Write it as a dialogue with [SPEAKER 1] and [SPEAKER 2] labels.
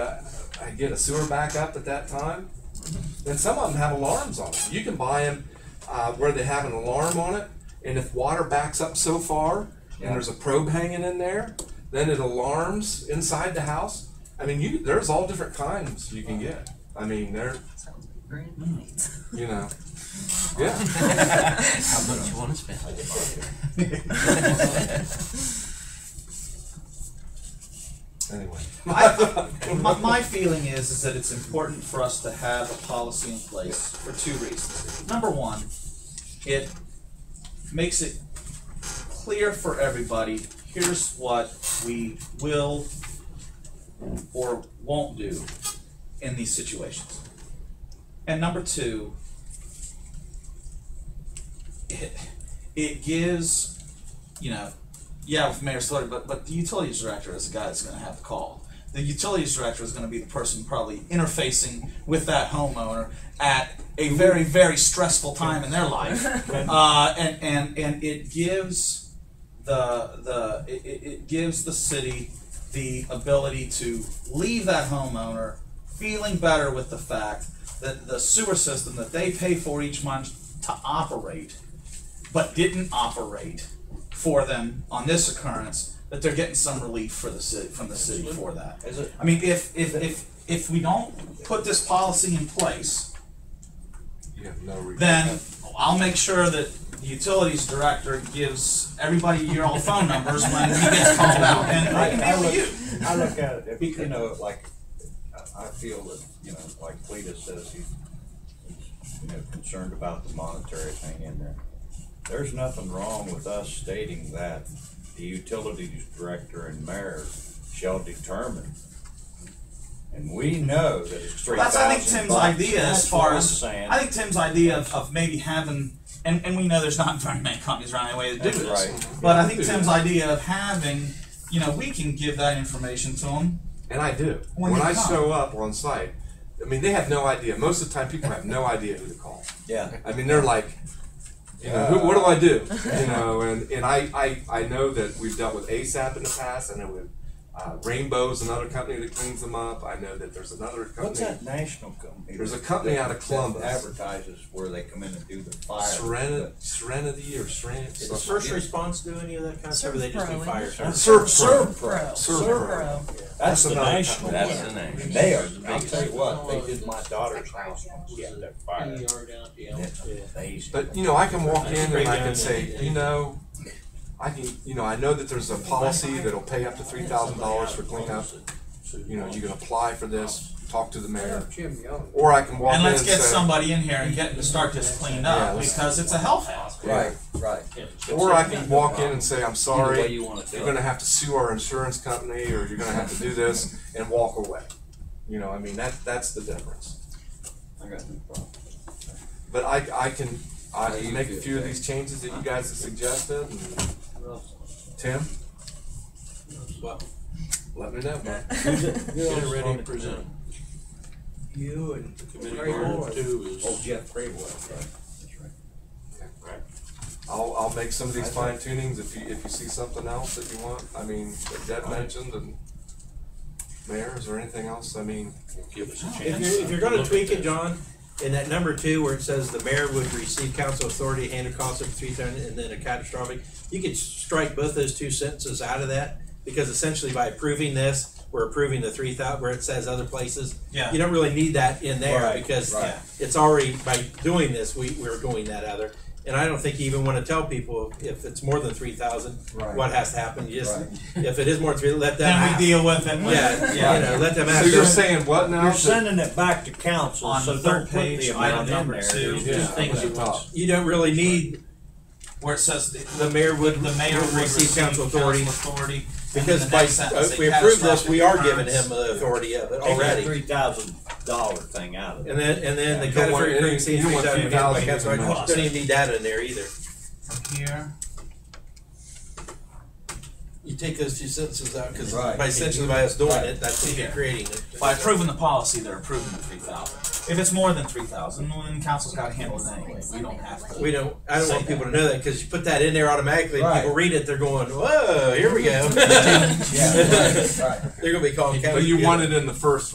[SPEAKER 1] uh, get a sewer backup at that time. And some of them have alarms on it. You can buy them uh, where they have an alarm on it, and if water backs up so far, and there's a probe hanging in there, then it alarms inside the house. I mean, you there's all different kinds you can get. I mean, they're
[SPEAKER 2] Sounds like brand new.
[SPEAKER 1] you know, yeah.
[SPEAKER 3] How much you wanna spend?
[SPEAKER 1] Anyway,
[SPEAKER 4] I, my, my feeling is is that it's important for us to have a policy in place for two reasons. Number one, it makes it clear for everybody here's what we will or won't do in these situations. And number two, it, it gives, you know, yeah, with Mayor Slaughter, but, but the utilities director is the guy that's gonna have the call. The utilities director is gonna be the person probably interfacing with that homeowner at a very, very stressful time in their life. Uh, and, and, and it gives the, the, it, it it gives the city the ability to leave that homeowner feeling better with the fact that the sewer system that they pay for each month to operate but didn't operate for them on this occurrence, that they're getting some relief for the city, from the city for that.
[SPEAKER 3] Is it-
[SPEAKER 4] I mean, if, if, if, if we don't put this policy in place,
[SPEAKER 1] you have no regret.
[SPEAKER 4] then I'll make sure that the utilities director gives everybody your old phone numbers when he gets called out, and I
[SPEAKER 5] I
[SPEAKER 4] can
[SPEAKER 5] would-
[SPEAKER 4] deal you.
[SPEAKER 5] I look at it, if, you know, like, I- I feel that, you know, like Cleta says, he's, you know, concerned about the monetary thing in there. There's nothing wrong with us stating that the utilities director and mayor shall determine. And we know that it's three
[SPEAKER 4] That's,
[SPEAKER 5] thousand
[SPEAKER 4] I think, Tim's idea as far as,
[SPEAKER 5] saying.
[SPEAKER 4] I think Tim's idea of, of maybe having, and, and we know there's not very many companies around anyway that do
[SPEAKER 5] That's
[SPEAKER 4] this.
[SPEAKER 5] right.
[SPEAKER 4] But I think Tim's idea of having, you know, we can give that information to them.
[SPEAKER 1] And I do.
[SPEAKER 4] When
[SPEAKER 1] When,
[SPEAKER 4] you
[SPEAKER 1] I
[SPEAKER 4] come.
[SPEAKER 1] show up on site, I mean, they have no idea. Most of the time, people have no idea who to call.
[SPEAKER 5] Yeah.
[SPEAKER 1] I mean, they're like, you know, who, what do I do? You know, and, and I, I, I know that we've dealt with ASAP in the past. I know with uh, Rainbow's another company that cleans them up. I know that there's another company.
[SPEAKER 5] What's that national company?
[SPEAKER 1] There's a company out of
[SPEAKER 5] that
[SPEAKER 1] Columbus.
[SPEAKER 5] Advertises where they come in and do the fire.
[SPEAKER 1] Serenity, Serenity or Serenity?
[SPEAKER 6] Does first response do any of that kind of stuff, or they just do
[SPEAKER 2] Serve
[SPEAKER 6] fire
[SPEAKER 2] pro.
[SPEAKER 6] service?
[SPEAKER 1] Serve
[SPEAKER 5] Serve
[SPEAKER 2] Pro.
[SPEAKER 1] Serve
[SPEAKER 2] Pro.
[SPEAKER 5] That's the
[SPEAKER 1] another company.
[SPEAKER 5] national one.
[SPEAKER 3] That's the name.
[SPEAKER 5] They are, I'll tell you what, they did my daughter's house once, yeah, that fire.
[SPEAKER 6] ER down at the elm.
[SPEAKER 5] That's amazing.
[SPEAKER 1] But you know, I can walk in and I can
[SPEAKER 6] Breakdown.
[SPEAKER 1] say, you know, I can, you know, I know that there's a policy that'll pay up to three thousand dollars for cleanup. You know, you can apply for this, talk to the mayor, or I can walk
[SPEAKER 4] And
[SPEAKER 1] in and
[SPEAKER 4] let's
[SPEAKER 1] say.
[SPEAKER 4] get somebody in here and get to start this cleaned up
[SPEAKER 1] Yeah, let's-
[SPEAKER 4] because it's a health hazard.
[SPEAKER 5] Right, right.
[SPEAKER 1] Or I can walk in and say, I'm
[SPEAKER 3] Either way
[SPEAKER 1] sorry,
[SPEAKER 3] you wanna do
[SPEAKER 1] you're
[SPEAKER 3] it.
[SPEAKER 1] gonna have to sue our insurance company, or you're gonna have to do this, and walk away. You know, I mean, that, that's the difference.
[SPEAKER 5] I got no problem.
[SPEAKER 1] But I, I can, I
[SPEAKER 5] Yeah,
[SPEAKER 1] can
[SPEAKER 5] you
[SPEAKER 1] make a
[SPEAKER 5] do it,
[SPEAKER 1] few of
[SPEAKER 5] yeah.
[SPEAKER 1] these changes that you guys have suggested, and Tim,
[SPEAKER 6] Well,
[SPEAKER 1] let me know. bud.
[SPEAKER 6] get it ready to present.
[SPEAKER 5] You and.
[SPEAKER 6] The Committee part two is.
[SPEAKER 5] Oh, Jeff Graywell, right, that's right.
[SPEAKER 1] I'll, I'll make some of these
[SPEAKER 5] I
[SPEAKER 1] fine
[SPEAKER 5] think-
[SPEAKER 1] tunings if you, if you see something else that you want, I mean, that Deb mentioned and Mayor, is there anything else, I mean,
[SPEAKER 6] Give us a chance.
[SPEAKER 7] If you're, if you're gonna tweak it, John, in that number two where it says the mayor would receive council authority and a cost of three thousand and then a catastrophic, you could strike both those two sentences out of that, because essentially by approving this, we're approving the three thou, where it says other places.
[SPEAKER 4] Yeah.
[SPEAKER 7] You don't really need that in there,
[SPEAKER 5] Right,
[SPEAKER 7] because
[SPEAKER 5] right.
[SPEAKER 7] it's already, by doing this, we, we're doing that other. And I don't think you even wanna tell people if it's more than three thousand,
[SPEAKER 5] Right.
[SPEAKER 7] what has to happen, you just,
[SPEAKER 5] Right.
[SPEAKER 7] if it is more than three, let them
[SPEAKER 4] Then
[SPEAKER 7] ask.
[SPEAKER 4] we deal with it. when-
[SPEAKER 7] Yeah,
[SPEAKER 4] yeah.
[SPEAKER 7] you know, let them ask.
[SPEAKER 1] so you're saying what now?
[SPEAKER 5] You're
[SPEAKER 1] That-
[SPEAKER 5] sending it back to council,
[SPEAKER 4] On
[SPEAKER 5] so
[SPEAKER 4] the
[SPEAKER 5] don't
[SPEAKER 4] third
[SPEAKER 5] put the
[SPEAKER 4] page, item
[SPEAKER 5] amount in
[SPEAKER 4] number
[SPEAKER 5] there.
[SPEAKER 4] two,
[SPEAKER 5] Just-
[SPEAKER 4] just things you want,
[SPEAKER 7] You don't really need
[SPEAKER 4] where it says the,
[SPEAKER 7] the mayor would,
[SPEAKER 4] the mayor would receive council authority. authority and then
[SPEAKER 7] Because
[SPEAKER 4] the
[SPEAKER 7] by,
[SPEAKER 4] next sentence,
[SPEAKER 7] if
[SPEAKER 4] a
[SPEAKER 7] we approve this, we are giving
[SPEAKER 4] catastrophic
[SPEAKER 7] him the authority of it
[SPEAKER 5] Take that
[SPEAKER 7] already.
[SPEAKER 5] three thousand dollar thing out of it.
[SPEAKER 7] And then, and then the
[SPEAKER 1] You don't want
[SPEAKER 7] category
[SPEAKER 1] any-
[SPEAKER 7] increase,
[SPEAKER 1] you
[SPEAKER 7] he's
[SPEAKER 1] don't want
[SPEAKER 7] down,
[SPEAKER 1] $3,000
[SPEAKER 7] that's right,
[SPEAKER 1] in the
[SPEAKER 7] don't even need that in there either.
[SPEAKER 4] occurrence Here,
[SPEAKER 7] You take those two sentences out, cause
[SPEAKER 5] Right.
[SPEAKER 7] by essentially by us doing
[SPEAKER 5] Right.
[SPEAKER 7] it, that's what you're
[SPEAKER 4] Yeah.
[SPEAKER 7] creating. it.
[SPEAKER 4] by approving the policy, they're approving the three thousand. If it's more than three thousand, then council's gotta handle it anyway, we don't have to.
[SPEAKER 7] We don't, I don't want
[SPEAKER 4] Say
[SPEAKER 7] people to know that, cause you put that in there automatically, and
[SPEAKER 5] Right.
[SPEAKER 7] people read it, they're going, whoa, here we go.
[SPEAKER 5] Yeah, right, right.
[SPEAKER 7] They're gonna be calling county.
[SPEAKER 1] But you
[SPEAKER 7] together.
[SPEAKER 1] want it in the first